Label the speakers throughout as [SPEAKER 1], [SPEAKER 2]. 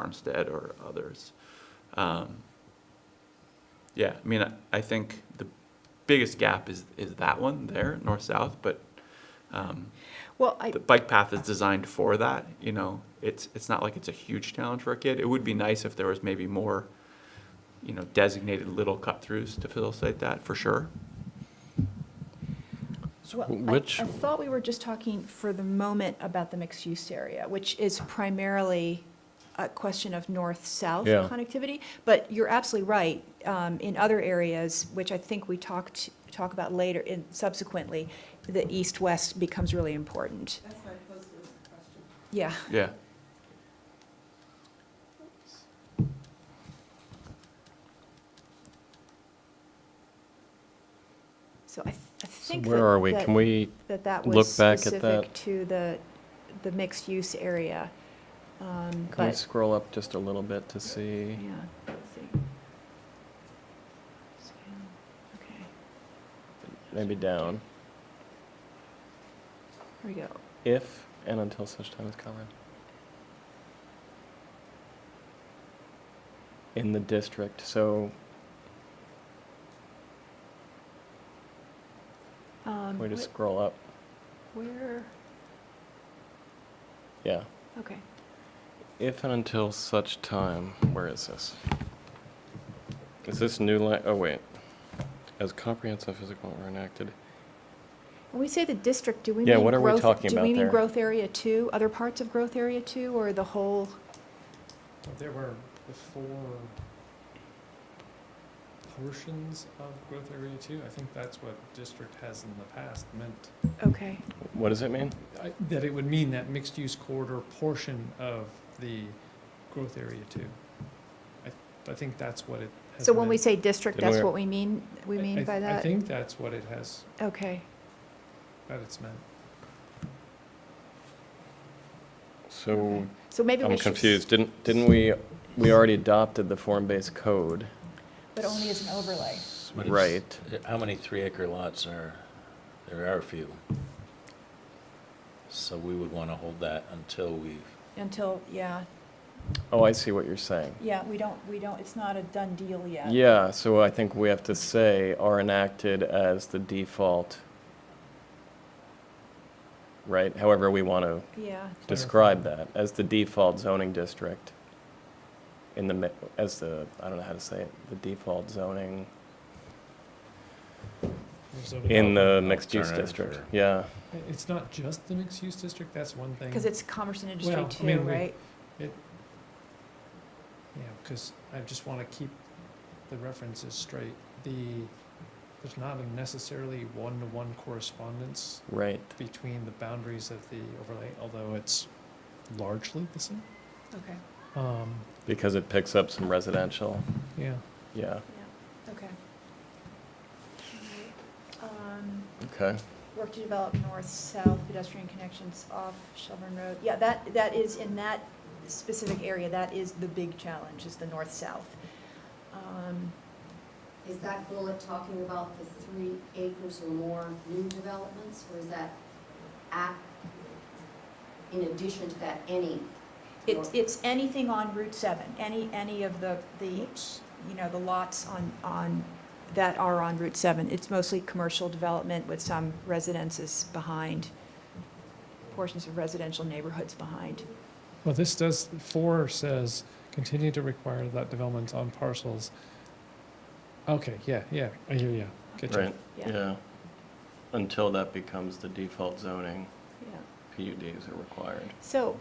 [SPEAKER 1] Farmstead or others. Um, Yeah, I mean, I- I think the biggest gap is, is that one there, north-south, but um,
[SPEAKER 2] Well, I,
[SPEAKER 1] the bike path is designed for that, you know? It's, it's not like it's a huge challenge for a kid. It would be nice if there was maybe more, you know, designated little cut-throughs to facilitate that, for sure.
[SPEAKER 2] well, I-
[SPEAKER 3] Which-
[SPEAKER 2] I thought we were just talking for the moment about the mixed-use area, which is primarily a question of north-south
[SPEAKER 3] Yeah.
[SPEAKER 2] connectivity. But you're absolutely right. um, In other areas, which I think we talked, talk about later in subsequently, the east-west becomes really important. That's why I posed question.
[SPEAKER 1] Yeah.
[SPEAKER 2] Yeah, so I th- I
[SPEAKER 3] So
[SPEAKER 2] think.
[SPEAKER 3] where
[SPEAKER 2] that-
[SPEAKER 3] are we?
[SPEAKER 2] that-
[SPEAKER 3] Can we,
[SPEAKER 2] that that
[SPEAKER 3] look
[SPEAKER 2] was
[SPEAKER 3] back at
[SPEAKER 2] specific
[SPEAKER 3] that.
[SPEAKER 2] to the, the mixed-use area. Um,
[SPEAKER 3] can we
[SPEAKER 2] But,
[SPEAKER 3] scroll up just a little bit to see?
[SPEAKER 2] yeah, let's see. Scan, Okay,
[SPEAKER 3] Maybe down.
[SPEAKER 2] here we go.
[SPEAKER 3] If and until such time as common. In the district, so
[SPEAKER 2] Um,
[SPEAKER 3] can we just
[SPEAKER 2] what-
[SPEAKER 3] scroll up?
[SPEAKER 2] Um, Where,
[SPEAKER 3] Yeah.
[SPEAKER 2] okay.
[SPEAKER 3] If and until such time, where is this? Is this new line? Oh, wait. As comprehensive physical were enacted.
[SPEAKER 2] When we say the district, do we mean
[SPEAKER 3] Yeah,
[SPEAKER 2] growth?
[SPEAKER 3] what are we talking
[SPEAKER 2] Do
[SPEAKER 3] about
[SPEAKER 2] we mean
[SPEAKER 3] there?
[SPEAKER 2] growth area two, other parts of growth area two, or the whole?
[SPEAKER 4] There were the four portions of growth area two. I think that's what district has in the past meant.
[SPEAKER 2] Okay,
[SPEAKER 3] What does it mean?
[SPEAKER 4] I- That it would mean that mixed-use corridor portion of the growth area two. I, I think that's what it has.
[SPEAKER 2] so when we
[SPEAKER 4] meant.
[SPEAKER 2] say district,
[SPEAKER 3] Didn't
[SPEAKER 2] that's
[SPEAKER 3] we-
[SPEAKER 2] what we mean, we
[SPEAKER 4] I- I-
[SPEAKER 2] mean by that?
[SPEAKER 4] I think that's what it has,
[SPEAKER 2] Okay,
[SPEAKER 4] that it's meant.
[SPEAKER 3] So
[SPEAKER 2] so maybe we
[SPEAKER 3] I'm
[SPEAKER 2] should. s-
[SPEAKER 3] confused. Didn't, didn't we, we already adopted the form-based code?
[SPEAKER 2] But only as an overlay.
[SPEAKER 5] But it's-
[SPEAKER 3] Right.
[SPEAKER 5] How many three-acre lots are, there are a few. So we would want to hold that until we,
[SPEAKER 2] Until, yeah,
[SPEAKER 3] Oh, I see what you're saying.
[SPEAKER 2] yeah, we don't, we don't, it's not a done deal yet.
[SPEAKER 3] Yeah, so I think we have to say are enacted as the default. Right, however we want to
[SPEAKER 2] Yeah,
[SPEAKER 3] describe that, as the default zoning district. In the, mi- as the, I don't know how to say it, the default zoning
[SPEAKER 4] There's a-
[SPEAKER 3] in the mixed-use
[SPEAKER 5] Alternative
[SPEAKER 3] district,
[SPEAKER 5] or-
[SPEAKER 3] yeah.
[SPEAKER 4] It's not just the mixed-use district, that's one thing.
[SPEAKER 2] because it's commerce and industry
[SPEAKER 4] Well, I
[SPEAKER 2] too,
[SPEAKER 4] mean, we-
[SPEAKER 2] right?
[SPEAKER 4] Yeah, because I just want to keep the references straight. The, there's not a necessarily one-to-one correspondence
[SPEAKER 3] Right,
[SPEAKER 4] between the boundaries of the overlay, although it's largely the same.
[SPEAKER 2] Okay,
[SPEAKER 4] Um,
[SPEAKER 3] because it picks up some residential,
[SPEAKER 4] yeah,
[SPEAKER 3] yeah,
[SPEAKER 2] yeah, okay.
[SPEAKER 3] okay.
[SPEAKER 2] um, Work to develop north-south pedestrian connections off Shelburne Road. Yeah, that, that is, in that specific area, that is the big challenge, is the north-south. Um,
[SPEAKER 6] Is that bullet talking about the three acres or more new developments, or is that at, in addition to that, any?
[SPEAKER 2] It's, it's anything on Route 7, any, any of the, the
[SPEAKER 4] oops,
[SPEAKER 2] you know, the lots on, on, that are on Route 7. It's mostly commercial development with some residences behind, portions of residential neighborhoods behind.
[SPEAKER 4] well, this does, four says, continue to require that development on parcels. Okay, yeah, yeah, I hear you, good job.
[SPEAKER 3] Right, yeah. Until that becomes the default zoning,
[SPEAKER 2] Yeah.
[SPEAKER 3] PUDs are required.
[SPEAKER 2] So,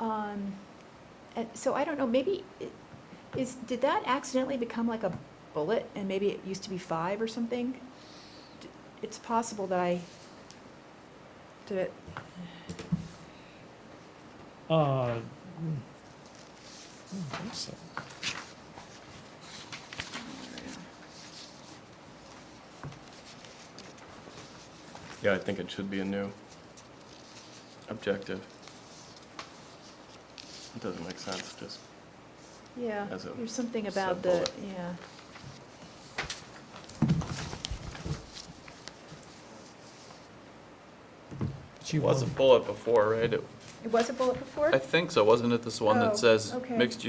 [SPEAKER 2] um, and so I don't know, maybe, it- is, did that accidentally become like a bullet? And maybe it used to be five or something? D- It's possible that I, did it,
[SPEAKER 4] Uh, mm, I don't think so.
[SPEAKER 3] Yeah, I think it should be a new objective. It doesn't make sense, just,
[SPEAKER 2] yeah,
[SPEAKER 3] As a
[SPEAKER 2] there's something about the,
[SPEAKER 3] sub-bullet.
[SPEAKER 2] yeah.
[SPEAKER 4] But you
[SPEAKER 1] was a
[SPEAKER 4] want-
[SPEAKER 1] bullet before, right? It
[SPEAKER 2] It was a bullet before?
[SPEAKER 1] I think so, wasn't it this one
[SPEAKER 2] Oh,
[SPEAKER 1] that says
[SPEAKER 2] okay.
[SPEAKER 1] mixed use